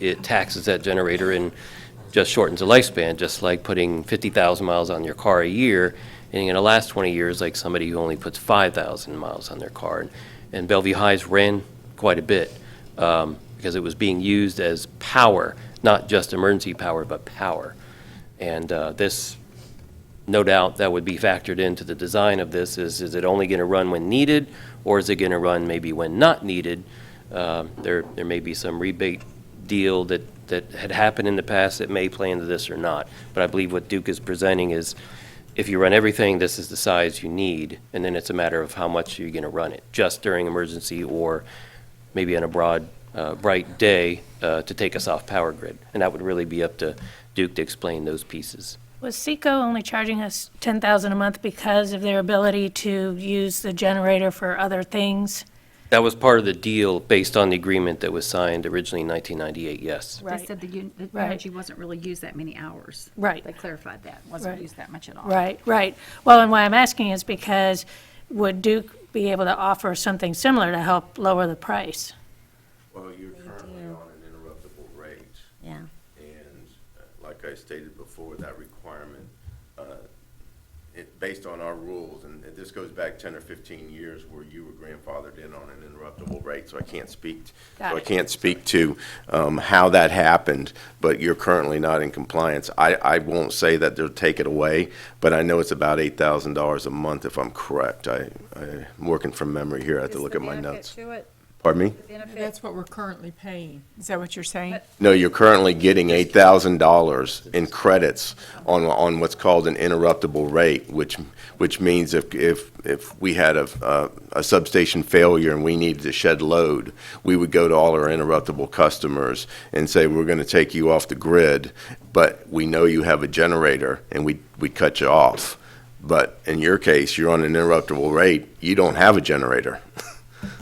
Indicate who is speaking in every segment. Speaker 1: it taxes that generator and just shortens the lifespan, just like putting 50,000 miles on your car a year, and in the last 20 years, like somebody who only puts 5,000 miles on their car. And Bellevue Highs ran quite a bit, um, because it was being used as power, not just emergency power, but power. And uh, this, no doubt, that would be factored into the design of this, is, is it only going to run when needed, or is it going to run maybe when not needed? Um, There, there may be some rebate deal that, that had happened in the past that may play into this or not. But I believe what Duke is presenting is, if you run everything, this is the size you need, and then it's a matter of how much you're going to run it, just during emergency or maybe on a broad, uh, bright day uh, to take us off power grid. And that would really be up to Duke to explain those pieces.
Speaker 2: Was Seco only charging us 10,000 a month because of their ability to use the generator for other things?
Speaker 1: That was part of the deal based on the agreement that was signed originally in 1998, yes.
Speaker 2: Right.
Speaker 3: They said the un- the
Speaker 2: Right.
Speaker 3: energy wasn't really used that many hours.
Speaker 2: Right.
Speaker 3: They clarified that, wasn't
Speaker 2: Right.
Speaker 3: used that much at all.
Speaker 2: Right, right. Well, and why I'm asking is because would Duke be able to offer something similar to help lower the price?
Speaker 4: Well, you're currently on an interruptible rate,
Speaker 3: Yeah.
Speaker 4: and uh, like I stated before, that requirement, uh, it, based on our rules, and this goes back ten or fifteen years where you were grandfathered in on an interruptible rate, so I can't speak, so
Speaker 2: Got
Speaker 4: I
Speaker 2: it.
Speaker 4: can't speak to, um, how that happened, but you're currently not in compliance. I, I won't say that they'll take it away, but I know it's about eight thousand dollars a month if I'm correct. I, I'm working from memory here, I have to look at my notes. Pardon me?
Speaker 5: That's what we're currently paying. Is that what you're saying?
Speaker 4: No, you're currently getting eight thousand dollars in credits on, on what's called an interruptible rate, which, which means if, if, if we had a, uh, a substation failure and we needed to shed load, we would go to all our interruptible customers and say, we're gonna take you off the grid, but we know you have a generator, and we, we cut you off. But in your case, you're on an interruptible rate, you don't have a generator.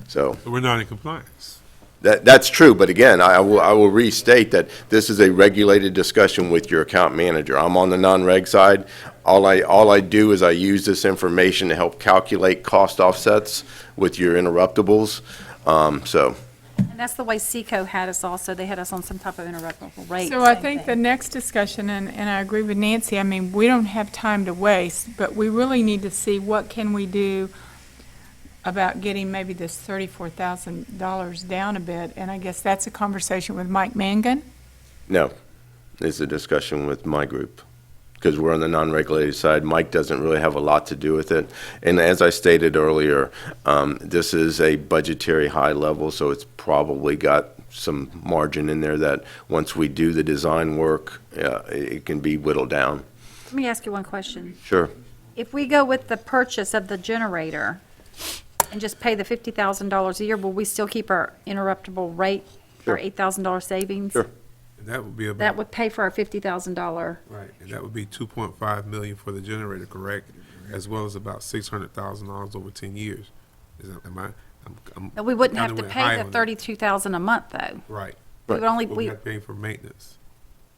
Speaker 4: So,
Speaker 6: But we're not in compliance.
Speaker 4: that, that's true, but again, I I will, I will restate that this is a regulated discussion with your account manager. I'm on the non-reg side. All I, all I do is I use this information to help calculate cost offsets with your interruptibles. Um, so,
Speaker 3: And that's the way Seco had us also, they had us on some type of interruptible rate.
Speaker 5: So I
Speaker 3: same
Speaker 5: think the
Speaker 3: thing.
Speaker 5: next discussion, and, and I agree with Nancy, I mean, we don't have time to waste, but we really need to see what can we do about getting maybe this thirty-four thousand dollars down a bit, and I guess that's a conversation with Mike Mangan.
Speaker 4: no, it's a discussion with my group, because we're on the non-regulated side. Mike doesn't really have a lot to do with it. And as I stated earlier, um, this is a budgetary high level, so it's probably got some margin in there that once we do the design work, uh, it it can be whittled down.
Speaker 3: Let me ask you one question.
Speaker 4: Sure.
Speaker 3: If we go with the purchase of the generator and just pay the fifty thousand dollars a year, will we still keep our interruptible rate, our
Speaker 4: Sure.
Speaker 3: eight thousand dollar savings?
Speaker 4: Sure.
Speaker 6: And that would be about,
Speaker 3: That would pay for our fifty thousand dollar,
Speaker 6: right, and that would be two point five million for the generator, correct? As well as about six hundred thousand dollars over ten years. Is that, am I, I'm, I'm.
Speaker 3: we wouldn't have
Speaker 6: kinda
Speaker 3: to
Speaker 6: went high
Speaker 3: pay the
Speaker 6: on that.
Speaker 3: thirty-two thousand a month, though.
Speaker 6: Right.
Speaker 3: We would only,
Speaker 6: We're
Speaker 3: we,
Speaker 6: not paying for maintenance.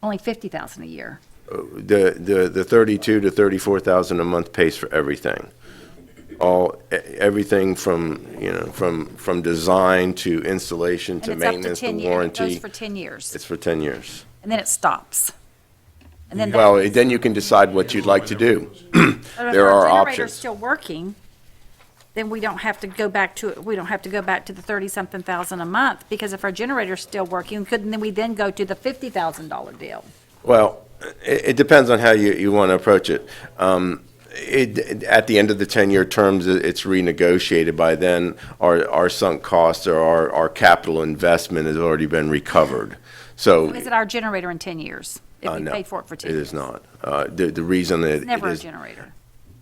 Speaker 3: only fifty thousand a year.
Speaker 4: Uh, The, the, the thirty-two to thirty-four thousand a month pays for everything. All, e- everything from, you know, from, from design to installation to
Speaker 3: And it's up
Speaker 4: maintenance to
Speaker 3: ten
Speaker 4: warranty.
Speaker 3: years. It goes for ten years.
Speaker 4: It's for 10 years.
Speaker 3: and then it stops. And then
Speaker 4: Well, then you can decide what you'd like to do.
Speaker 3: But if
Speaker 4: there
Speaker 3: our
Speaker 4: are
Speaker 3: generator's
Speaker 4: options.
Speaker 3: still working, then we don't have to go back to, we don't have to go back to the thirty-something thousand a month, because if our generator's still working, couldn't then we then go to the fifty thousand dollar deal?
Speaker 4: Well, it, it depends on how you, you want to approach it. Um, it, at the end of the 10-year terms, it- it's renegotiated by then. Our, our sunk costs or our, our capital investment has already been recovered. So,
Speaker 3: Is it our generator in ten years? If
Speaker 4: uh,
Speaker 3: we
Speaker 4: no,
Speaker 3: paid for it for
Speaker 4: it
Speaker 3: ten years?
Speaker 4: is not. Uh, the, the reason that
Speaker 3: It's
Speaker 4: it
Speaker 3: never our
Speaker 4: is,
Speaker 3: generator.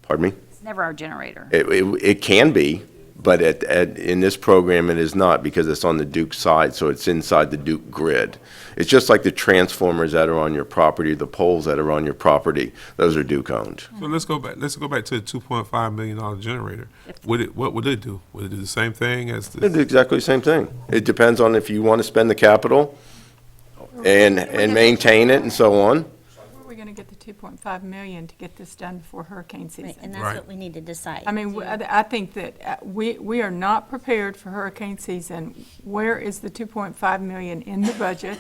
Speaker 4: pardon me?
Speaker 3: It's never our generator.
Speaker 4: It, it, it can be, but at, at, in this program, it is not because it's on the Duke side, so it's inside the Duke grid. It's just like the transformers that are on your property, the poles that are on your property, those are Duke owned.
Speaker 6: So let's go back, let's go back to the two point five million dollar generator. Would it, what would it do? Would it do the same thing as
Speaker 4: It's
Speaker 6: the?
Speaker 4: exactly the same thing. It depends on if you want to spend the capital and, and maintain it and so on.
Speaker 5: Where are we gonna get the two point five million to get this done before hurricane
Speaker 7: Right,
Speaker 5: season?
Speaker 7: and that's
Speaker 6: Right.
Speaker 7: what we need to decide.
Speaker 5: I mean, w- I I think that uh, we, we are not prepared for hurricane season. Where is the 2.5 million in the budget?